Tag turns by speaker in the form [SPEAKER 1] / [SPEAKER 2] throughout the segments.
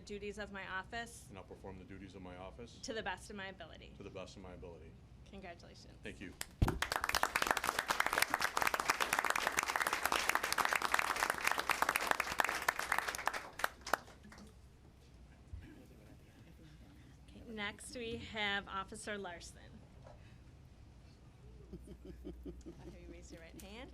[SPEAKER 1] duties of my office
[SPEAKER 2] and I'll perform the duties of my office
[SPEAKER 1] to the best of my ability.
[SPEAKER 2] to the best of my ability.
[SPEAKER 1] Congratulations.
[SPEAKER 2] Thank you.
[SPEAKER 1] Next, we have Officer Larson. I'll have you raise your right hand.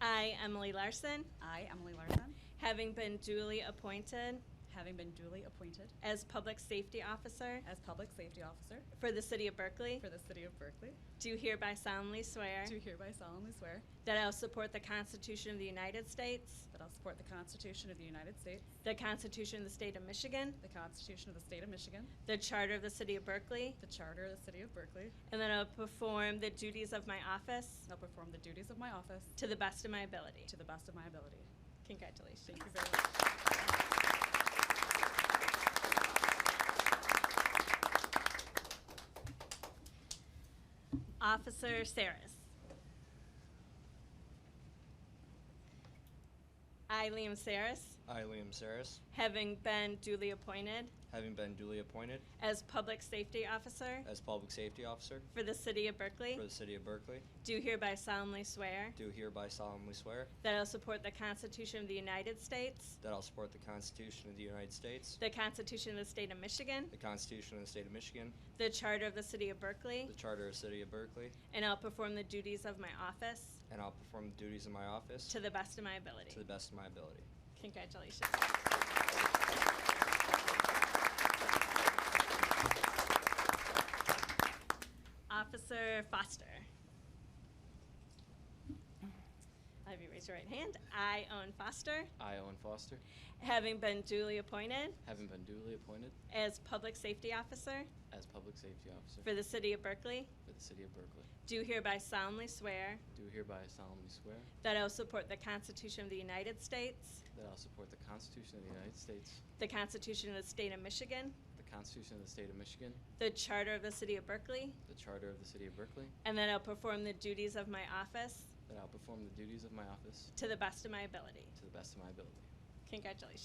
[SPEAKER 1] I, Emily Larson,
[SPEAKER 3] I, Emily Larson,
[SPEAKER 1] having been duly appointed
[SPEAKER 3] having been duly appointed
[SPEAKER 1] as Public Safety Officer
[SPEAKER 3] as Public Safety Officer
[SPEAKER 1] for the City of Berkeley,
[SPEAKER 3] for the City of Berkeley,
[SPEAKER 1] do hereby solemnly swear
[SPEAKER 3] do hereby solemnly swear
[SPEAKER 1] that I will support the Constitution of the United States,
[SPEAKER 3] that I'll support the Constitution of the United States,
[SPEAKER 1] the Constitution of the State of Michigan,
[SPEAKER 3] the Constitution of the State of Michigan,
[SPEAKER 1] the Charter of the City of Berkeley,
[SPEAKER 3] the Charter of the City of Berkeley,
[SPEAKER 1] and that I will perform the duties of my office
[SPEAKER 3] and I'll perform the duties of my office
[SPEAKER 1] to the best of my ability.
[SPEAKER 3] to the best of my ability.
[SPEAKER 1] Congratulations.
[SPEAKER 3] Thank you very much.
[SPEAKER 1] Officer Saris. I, Liam Saris,
[SPEAKER 4] I, Liam Saris,
[SPEAKER 1] having been duly appointed
[SPEAKER 4] having been duly appointed
[SPEAKER 1] as Public Safety Officer
[SPEAKER 4] as Public Safety Officer
[SPEAKER 1] for the City of
[SPEAKER 4] for
[SPEAKER 1] Berkeley,
[SPEAKER 4] the City of Berkeley,
[SPEAKER 1] do hereby solemnly swear
[SPEAKER 4] do hereby solemnly swear
[SPEAKER 1] that I will support the Constitution of the United States,
[SPEAKER 4] that I'll support the Constitution of the United States,
[SPEAKER 1] the Constitution of the State of Michigan,
[SPEAKER 4] the Constitution of the State of Michigan,
[SPEAKER 1] the Charter of the City of
[SPEAKER 4] the
[SPEAKER 1] Berkeley,
[SPEAKER 4] Charter of the City of Berkeley,
[SPEAKER 1] and I'll perform the duties of my office
[SPEAKER 4] and I'll perform the duties of my office
[SPEAKER 1] to the best of my
[SPEAKER 4] to the
[SPEAKER 1] ability.
[SPEAKER 4] best of my ability.
[SPEAKER 1] Congratulations. Officer Foster. I'll have you raise your right hand. I, Owen Foster,
[SPEAKER 5] I, Owen Foster,
[SPEAKER 1] having been duly appointed
[SPEAKER 5] having been duly appointed
[SPEAKER 1] as Public Safety Officer
[SPEAKER 5] as Public Safety Officer
[SPEAKER 1] for the City of Berkeley,
[SPEAKER 5] for the City of Berkeley,
[SPEAKER 1] do hereby solemnly swear
[SPEAKER 5] do hereby solemnly swear
[SPEAKER 1] that I will support the Constitution of the United States,
[SPEAKER 5] that I'll support the Constitution of the United States,
[SPEAKER 1] the Constitution of the State of Michigan,
[SPEAKER 5] the Constitution of the State of Michigan,
[SPEAKER 1] the Charter of the City of Berkeley,
[SPEAKER 5] the Charter of the City of Berkeley,
[SPEAKER 1] and that I'll perform the duties of my office
[SPEAKER 5] that I'll perform the duties of my office
[SPEAKER 1] to the best of my ability.
[SPEAKER 5] to the best of my ability.
[SPEAKER 1] Congratulations.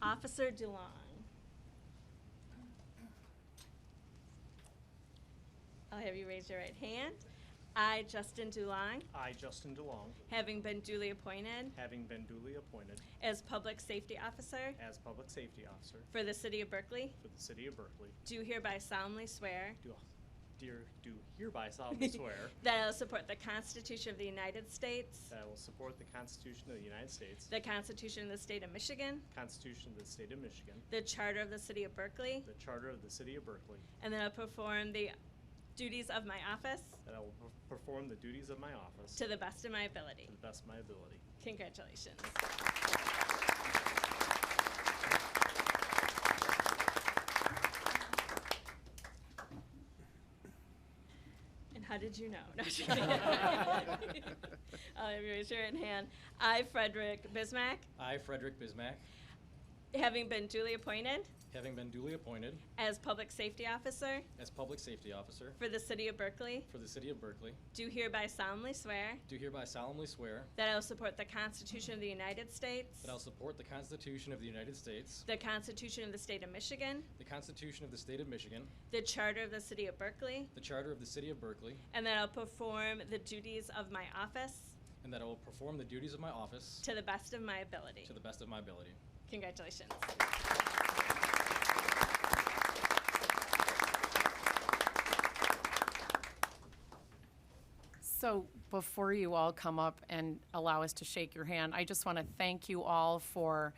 [SPEAKER 1] Officer DeLong. I'll have you raise your right hand. I, Justin DeLong,
[SPEAKER 6] I, Justin DeLong,
[SPEAKER 1] having been duly appointed
[SPEAKER 6] having been duly appointed
[SPEAKER 1] as Public Safety Officer
[SPEAKER 6] as Public Safety Officer
[SPEAKER 1] for the City of Berkeley,
[SPEAKER 6] for the City of Berkeley,
[SPEAKER 1] do hereby solemnly swear
[SPEAKER 6] do dear- do hereby solemnly swear
[SPEAKER 1] that I will support the Constitution of the United States,
[SPEAKER 6] that I will support the Constitution of the United States,
[SPEAKER 1] the Constitution of the State of Michigan,
[SPEAKER 6] Constitution of the State of Michigan,
[SPEAKER 1] the Charter of the City of Berkeley,
[SPEAKER 6] the Charter of the City of Berkeley,
[SPEAKER 1] and then I'll perform the duties of my office
[SPEAKER 6] that I will per- perform the duties of my office
[SPEAKER 1] to
[SPEAKER 6] to
[SPEAKER 1] the best of my ability.
[SPEAKER 6] the best of my ability.
[SPEAKER 1] Congratulations. And how did you know? No, I'm just kidding. I'll raise your right hand. I, Frederick Bismack,
[SPEAKER 7] I, Frederick Bismack,
[SPEAKER 1] having been duly appointed
[SPEAKER 7] having been duly appointed
[SPEAKER 1] as Public Safety Officer
[SPEAKER 7] as Public Safety Officer
[SPEAKER 1] for the City of Berkeley,
[SPEAKER 7] for the City of Berkeley,
[SPEAKER 1] do hereby solemnly swear
[SPEAKER 7] do hereby solemnly swear
[SPEAKER 1] that I will support the Constitution of the United States,
[SPEAKER 7] that I will support the Constitution of the United States,
[SPEAKER 1] the Constitution of the State of Michigan,
[SPEAKER 7] the Constitution of the State of Michigan,
[SPEAKER 1] the Charter of the City of Berkeley,
[SPEAKER 7] the Charter of the City of Berkeley,
[SPEAKER 1] And that I'll perform the duties of my office
[SPEAKER 7] and that I will perform the duties of my office
[SPEAKER 1] to the best of my ability.
[SPEAKER 7] to the best of my ability.
[SPEAKER 1] Congratulations.
[SPEAKER 8] So before you all come up and allow us to shake your hand, I just want to thank you all for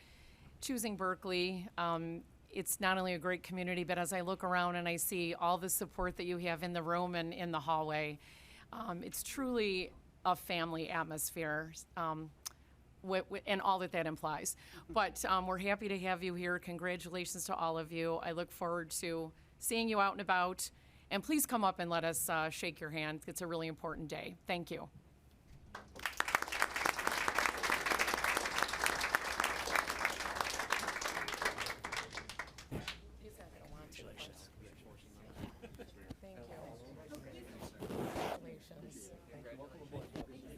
[SPEAKER 8] choosing Berkeley. Um, It's not only a great community, but as I look around and I see all the support that you have in the room and in the hallway, um, it's truly a family atmosphere. Um, what, what- and all that that implies. But um, we're happy to have you here. Congratulations to all of you. I look forward to seeing you out and about. And please come up and let us uh, shake your hand. It's a really important day. Thank you.